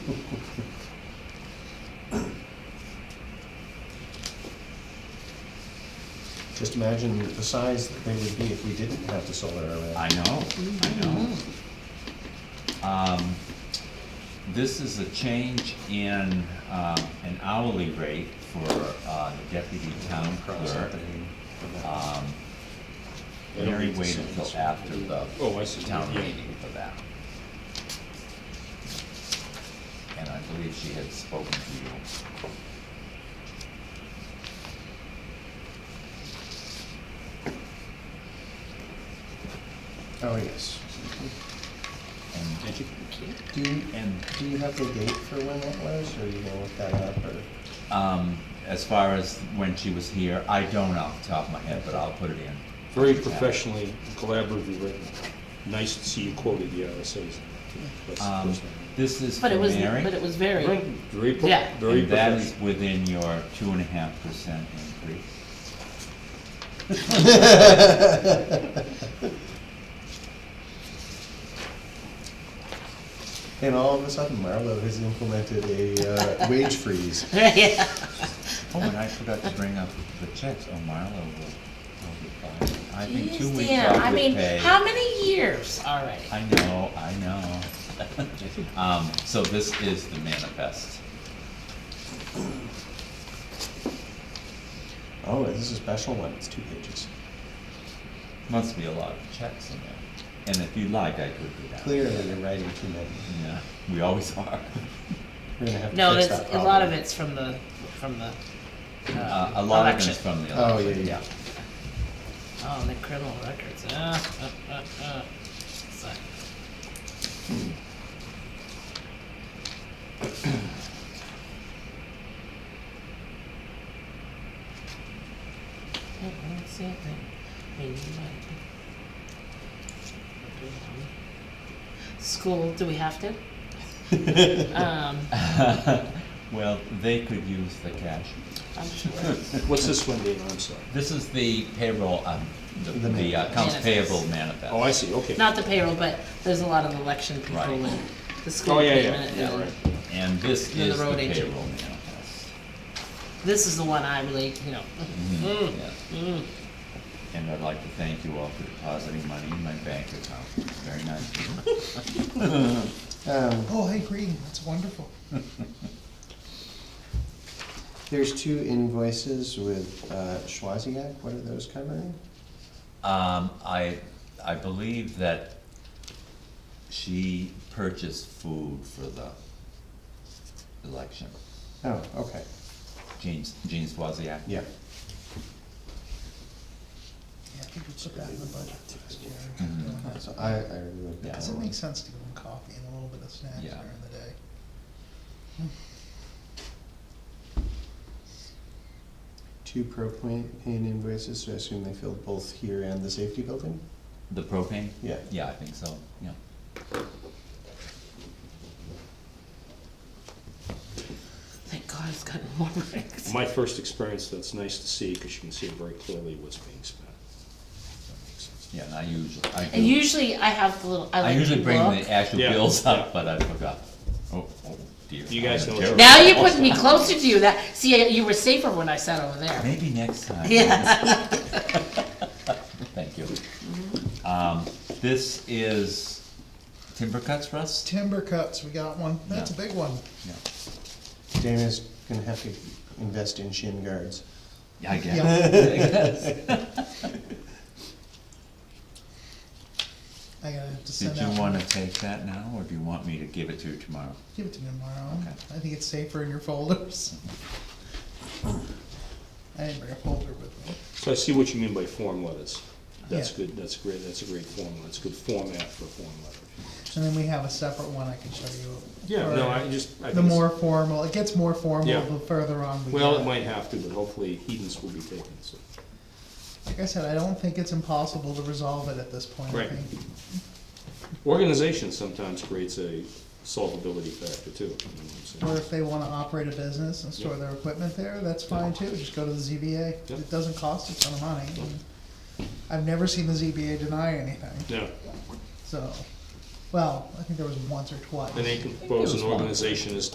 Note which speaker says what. Speaker 1: Just imagine the size that they would be if we didn't have the solar array.
Speaker 2: I know, I know. Um, This is a change in um, an hourly rate for uh, the deputy town
Speaker 1: Cross
Speaker 2: clerk.
Speaker 1: happening for that.
Speaker 2: Um,
Speaker 1: They don't
Speaker 2: Mary
Speaker 1: need to
Speaker 2: waited
Speaker 1: send
Speaker 2: till
Speaker 1: us.
Speaker 2: after the
Speaker 3: Oh, I see,
Speaker 2: town
Speaker 3: yeah.
Speaker 2: meeting for that. And I believe she had spoken to you.
Speaker 1: Oh, yes.
Speaker 2: And,
Speaker 1: you? Do you,
Speaker 2: and
Speaker 1: do you have the date for when that was, or are you gonna look that up, or?
Speaker 2: um, as far as when she was here, I don't off the top of my head, but I'll put it in.
Speaker 3: Very professionally, collaboratively written. Nice to see you quoted the RSA's. That's-
Speaker 2: Um,
Speaker 3: that's-
Speaker 2: This is for
Speaker 4: But it was,
Speaker 2: Mary.
Speaker 4: but it was very,
Speaker 3: Very, pro-
Speaker 4: Yeah.
Speaker 3: very
Speaker 2: And that is
Speaker 3: professional.
Speaker 2: within your two and a half percent increase.
Speaker 1: And all of a sudden, Marlowe has implemented a uh, wage freeze.
Speaker 4: yeah,
Speaker 2: Oh, and I forgot to bring up the checks, oh, Marlo will, will be fine. I think two
Speaker 4: Jeez,
Speaker 2: weeks
Speaker 4: Dan,
Speaker 2: off
Speaker 4: I
Speaker 2: with
Speaker 4: mean,
Speaker 2: pay.
Speaker 4: how many years already?
Speaker 2: I know, I know. Um, so this is the manifest.
Speaker 1: Oh, this is a special one, it's two pages.
Speaker 2: Must be a lot of checks in there. And if you like, I could do that.
Speaker 1: Clearly, you're writing too many.
Speaker 2: Yeah, we always are.
Speaker 1: We're gonna have
Speaker 4: No,
Speaker 1: to fix
Speaker 4: there's,
Speaker 1: that
Speaker 4: a
Speaker 1: problem.
Speaker 4: lot of it's from the, from the,
Speaker 2: Uh,
Speaker 4: uh,
Speaker 2: a lot of it
Speaker 4: election.
Speaker 2: is from the
Speaker 1: Oh, yeah,
Speaker 2: election,
Speaker 1: yeah.
Speaker 2: yeah.
Speaker 4: Oh, and the criminal records, uh, uh, uh, uh. So, Yeah, I don't see anything. I mean, you might. School, do we have to? Um,
Speaker 2: Well, they could use the cash.
Speaker 4: I'm sure.
Speaker 3: What's this one, Dana, I'm sorry?
Speaker 2: This is the payroll, um, the,
Speaker 1: The
Speaker 2: the uh, accounts
Speaker 4: manifest.
Speaker 2: payable manifest.
Speaker 3: Oh, I see, okay.
Speaker 4: Not the payroll, but there's a lot of election people
Speaker 2: Right.
Speaker 4: and the school
Speaker 3: Oh, yeah, yeah,
Speaker 4: payment.
Speaker 3: yeah,
Speaker 4: and-
Speaker 3: right.
Speaker 2: And this
Speaker 4: Then the
Speaker 2: is the
Speaker 4: road agent.
Speaker 2: payroll manifest.
Speaker 4: This is the one I really, you know, mm,
Speaker 2: Yeah.
Speaker 4: mm.
Speaker 2: And I'd like to thank you all for depositing money in my bank account. Very nice.
Speaker 1: Um,
Speaker 5: Oh, hey, green, that's wonderful.
Speaker 1: There's two invoices with uh, Schwaziak, what are those covering?
Speaker 2: Um, I, I believe that she purchased food for the election.
Speaker 1: Oh, okay,
Speaker 2: Jean, Jean Swaziak.
Speaker 1: yeah.
Speaker 5: Yeah, I think we put that in the budget last year.
Speaker 2: Mhm.
Speaker 1: So I, I removed
Speaker 2: Yeah.
Speaker 1: that
Speaker 5: Does it
Speaker 1: one.
Speaker 5: make sense to give them coffee and a little bit of snacks
Speaker 2: Yeah.
Speaker 5: during the day?
Speaker 1: Two propane invoices, so I assume they filled both here and the safety building?
Speaker 2: The propane?
Speaker 1: Yeah.
Speaker 2: Yeah, I think so, yeah.
Speaker 4: thank God it's gotten more rings.
Speaker 3: My first experience, that's nice to see, because you can see very clearly what's being spent. That makes sense.
Speaker 2: Yeah, and I usually, I do.
Speaker 4: And usually I have the little, I
Speaker 2: I
Speaker 4: like to
Speaker 2: usually bring
Speaker 4: look.
Speaker 2: the actual
Speaker 3: Yeah.
Speaker 2: bills up, but I forgot. Oh, oh dear.
Speaker 3: You
Speaker 2: I
Speaker 3: guys
Speaker 2: am
Speaker 3: know what's-
Speaker 2: terrible.
Speaker 4: Now you're putting me closer to you, that, see, you were safer when I sat over there.
Speaker 2: Maybe next time.
Speaker 4: Yeah,
Speaker 2: Thank you. Um, this is timber cuts, Russ?
Speaker 5: Timber cuts, we got one. That's a
Speaker 2: Yeah.
Speaker 5: big one.
Speaker 2: Yeah.
Speaker 1: Dana's gonna have to invest in shin guards.
Speaker 2: Yeah, I
Speaker 5: Yeah.
Speaker 2: guess.
Speaker 5: I gotta have to
Speaker 2: Did
Speaker 5: send
Speaker 2: you
Speaker 5: out.
Speaker 2: wanna take that now, or do you want me to give it to you tomorrow?
Speaker 5: Give it to me tomorrow.
Speaker 2: Okay.
Speaker 5: I think it's safer in your folders. I didn't bring a folder with me.
Speaker 3: So I see what you mean by form letters. That's
Speaker 5: Yeah.
Speaker 3: good, that's great, that's a great form, that's good format for a form letter.
Speaker 5: And then we have a separate one I can show you.
Speaker 3: Yeah,
Speaker 5: for
Speaker 3: no, I just, I
Speaker 5: The
Speaker 3: think,
Speaker 5: more
Speaker 3: it's-
Speaker 5: formal, it gets more formal
Speaker 3: Yeah.
Speaker 5: the further on we get.
Speaker 3: well, it might have to, but hopefully Edens will be taken, so.
Speaker 5: Like I said, I don't think it's impossible to resolve it at this point. I
Speaker 3: Right.
Speaker 5: think.
Speaker 3: Organization sometimes creates a solvability factor too. you know what
Speaker 5: Or
Speaker 3: I'm saying?
Speaker 5: if they wanna operate a business and store their equipment there, that's fine too, just go to the ZBA.
Speaker 3: Yep.
Speaker 5: It doesn't cost a ton of money. I've never seen the ZBA deny anything,
Speaker 3: No,
Speaker 5: so.
Speaker 6: Well, I think there was once or twice.
Speaker 3: And they can propose an
Speaker 5: was one.
Speaker 3: organization as